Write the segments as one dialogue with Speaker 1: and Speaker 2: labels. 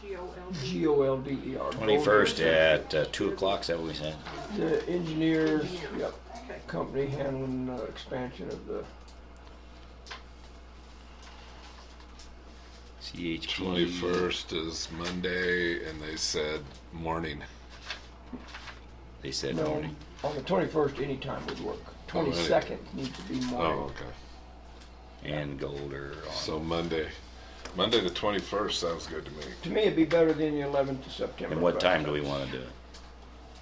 Speaker 1: G O L D.
Speaker 2: G O L D E R.
Speaker 3: Twenty-first at uh, two o'clock, is that what we said?
Speaker 2: The engineers, yep,
Speaker 1: Okay.
Speaker 2: company handling the expansion of the,
Speaker 3: CHP.
Speaker 4: Twenty-first is Monday, and they said morning.
Speaker 3: They said
Speaker 2: no,
Speaker 3: morning.
Speaker 2: on the twenty-first, anytime would
Speaker 3: Oh,
Speaker 2: work. Twenty-second needs to be
Speaker 4: Oh,
Speaker 2: morning.
Speaker 4: okay.
Speaker 3: And gold or on.
Speaker 4: So Monday, Monday the twenty-first sounds good to me.
Speaker 2: To me, it'd be better than the eleventh of September.
Speaker 3: and what
Speaker 2: but-
Speaker 3: time do we want to do it?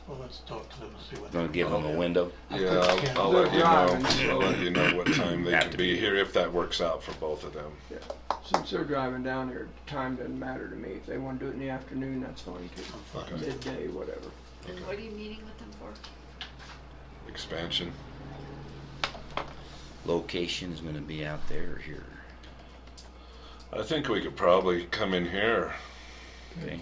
Speaker 5: Well, let's talk to them and see what.
Speaker 3: Going to give them a window?
Speaker 4: Yeah, I'll, I'll let you know. I'll let you know what time they
Speaker 3: Have
Speaker 4: can
Speaker 3: to
Speaker 4: be
Speaker 3: be.
Speaker 4: here if that works out for both of them.
Speaker 2: Yeah. Since they're driving down here, time doesn't matter to me. If they wanna do it in the afternoon, that's fine too.
Speaker 5: Fine.
Speaker 2: Midday, whatever.
Speaker 6: And what are you meeting with them for?
Speaker 4: Expansion.
Speaker 3: Location's going to be out there or here?
Speaker 4: I think we could probably come in here.
Speaker 3: Okay.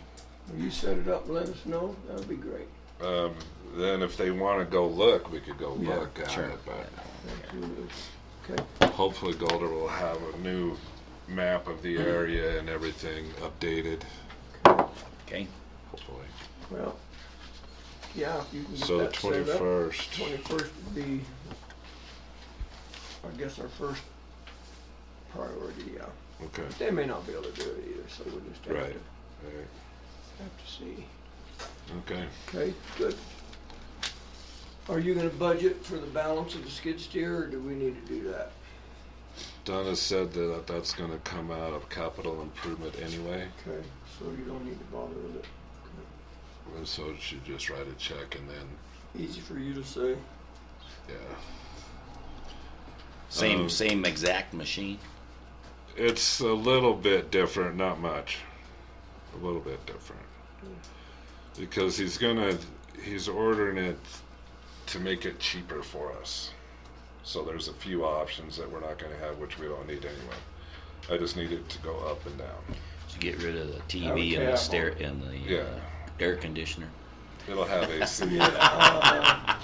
Speaker 2: Will you set it up and let us know? That'd be great.
Speaker 4: Um, then if they want to go look, we could go
Speaker 2: Yeah,
Speaker 4: look at
Speaker 3: sure.
Speaker 4: it. But
Speaker 2: Absolutely. Okay,
Speaker 4: hopefully, Golder will have a new map of the area and everything updated.
Speaker 3: Okay.
Speaker 4: Hopefully.
Speaker 2: well, yeah, if you can
Speaker 4: So
Speaker 2: get that set up.
Speaker 4: twenty-first.
Speaker 2: Twenty-first would be, I guess, our first priority, yeah.
Speaker 4: Okay.
Speaker 2: They may not be able to do it either, so we'll just have
Speaker 4: Right.
Speaker 2: to,
Speaker 4: Alright.
Speaker 2: have to see.
Speaker 4: Okay.
Speaker 2: Okay, good. Are you gonna budget for the balance of the skid steer, or do we need to do that?
Speaker 4: Donna said that that's going to come out of capital improvement anyway,
Speaker 2: Okay, so you don't need to bother with it.
Speaker 4: and so she just write a check and then
Speaker 2: Easy for you to say.
Speaker 4: yeah.
Speaker 3: Same
Speaker 4: Um,
Speaker 3: same exact machine.
Speaker 4: It's a little bit different, not much. A little bit different. Because he's gonna, he's ordering it to make it cheaper for us. So there's a few options that we're not gonna have, which we don't need anyway. I just need it to go up and down.
Speaker 3: To get rid of the TV
Speaker 2: Okay,
Speaker 3: and
Speaker 2: I'm
Speaker 3: the stair and the uh,
Speaker 4: Yeah.
Speaker 3: air conditioner.
Speaker 4: It'll have AC.
Speaker 2: Uh,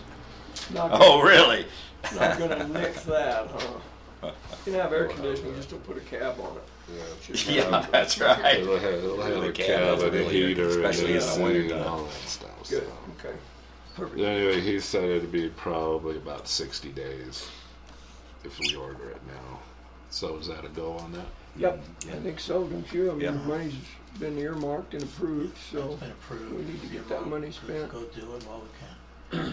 Speaker 2: Not,
Speaker 3: Oh, really?
Speaker 2: not gonna nix that, huh? You can have air conditioning, just don't put a cab on it.
Speaker 4: Yeah.
Speaker 2: Should
Speaker 3: Yeah,
Speaker 2: have-
Speaker 3: that's right.
Speaker 4: It'll have, it'll have
Speaker 3: The
Speaker 4: a
Speaker 3: cab
Speaker 4: cab
Speaker 3: is
Speaker 4: and a
Speaker 3: really good,
Speaker 4: heater and
Speaker 3: especially in the
Speaker 4: AC
Speaker 3: winter
Speaker 4: and
Speaker 3: time.
Speaker 4: all that stuff.
Speaker 2: Good,
Speaker 4: so.
Speaker 2: okay. Perfect.
Speaker 4: Anyway, he said it'd be probably about 60 days if we order it now. So is that a go on that?
Speaker 2: Yep, I think so, don't you? I mean,
Speaker 3: Yeah.
Speaker 2: the money's been earmarked and approved, so
Speaker 5: It's been approved.
Speaker 2: we need to get that money spent.
Speaker 5: Go do it while we can.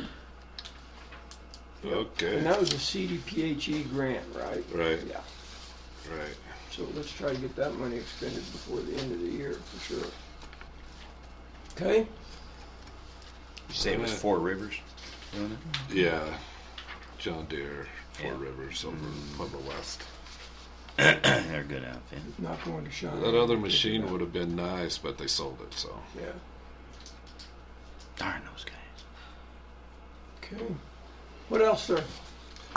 Speaker 2: And
Speaker 4: Okay.
Speaker 2: that was a CDPHE E grant, right?
Speaker 4: Right,
Speaker 2: Yeah,
Speaker 4: right.
Speaker 2: so let's try to get that money expended before the end of the year, for sure. Okay?
Speaker 3: You say it was Four Rivers?
Speaker 4: Yeah. John Deere, Four
Speaker 3: Yeah.
Speaker 4: Rivers over Pueblo West.
Speaker 3: They're good outfit.
Speaker 2: Not going to shine.
Speaker 4: That other machine would have been nice, but they sold it, so.
Speaker 2: Yeah,
Speaker 3: Darn those guys.
Speaker 2: okay. What else, sir?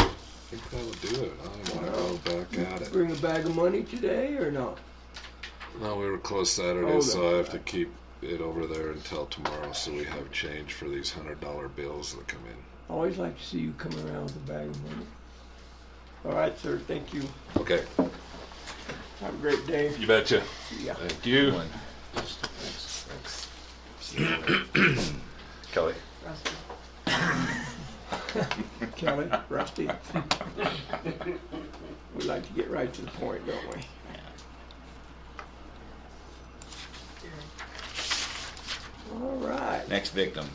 Speaker 4: I think that'll do it. I'm gonna go back at it.
Speaker 2: Bring a bag of money today or not?
Speaker 4: No, we were closed Saturday,
Speaker 2: Oh,
Speaker 4: so I
Speaker 2: that's
Speaker 4: have to keep it over there until tomorrow, so we have change for these hundred dollar bills that come in.
Speaker 2: Always like to see you come around with a bag of money. All right, sir, thank you.
Speaker 4: Okay,
Speaker 2: Have a great day.
Speaker 4: you betcha.
Speaker 2: Yeah.
Speaker 4: Thank you.
Speaker 3: One.
Speaker 4: Thanks.
Speaker 3: Kelly.
Speaker 1: Rusty.
Speaker 2: Kelly, Rusty. We like to get right to the point, don't we? All right,
Speaker 3: Next victim.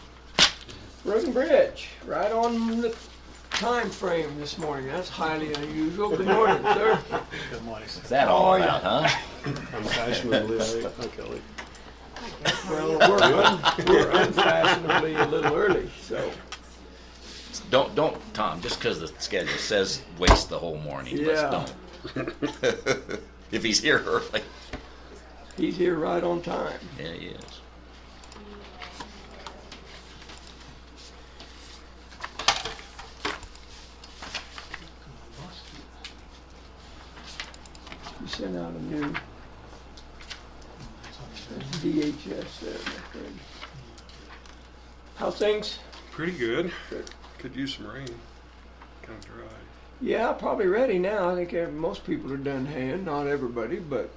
Speaker 2: Road and Bridge, right on the time frame this morning. That's highly unusual. Good morning, sir.
Speaker 7: Good morning.
Speaker 3: What's that all
Speaker 2: Oh, yeah.
Speaker 3: about, huh?
Speaker 7: I'm fashionably late. Hi, Kelly.
Speaker 2: Well, we're un- we're unfashionably a little early, so.
Speaker 3: Don't, don't, Tom, just because the schedule says waste the whole morning.
Speaker 2: Yeah.
Speaker 3: Let's don't. if he's here early.
Speaker 2: He's here right on time.
Speaker 3: Yeah, he is.
Speaker 2: You sent out a new DHS there, my friend. How things?
Speaker 8: Pretty good.
Speaker 2: Good.
Speaker 8: Could use some rain. Kind of dry.
Speaker 2: Yeah, probably ready now. I think ev- most people are done hand, not everybody, but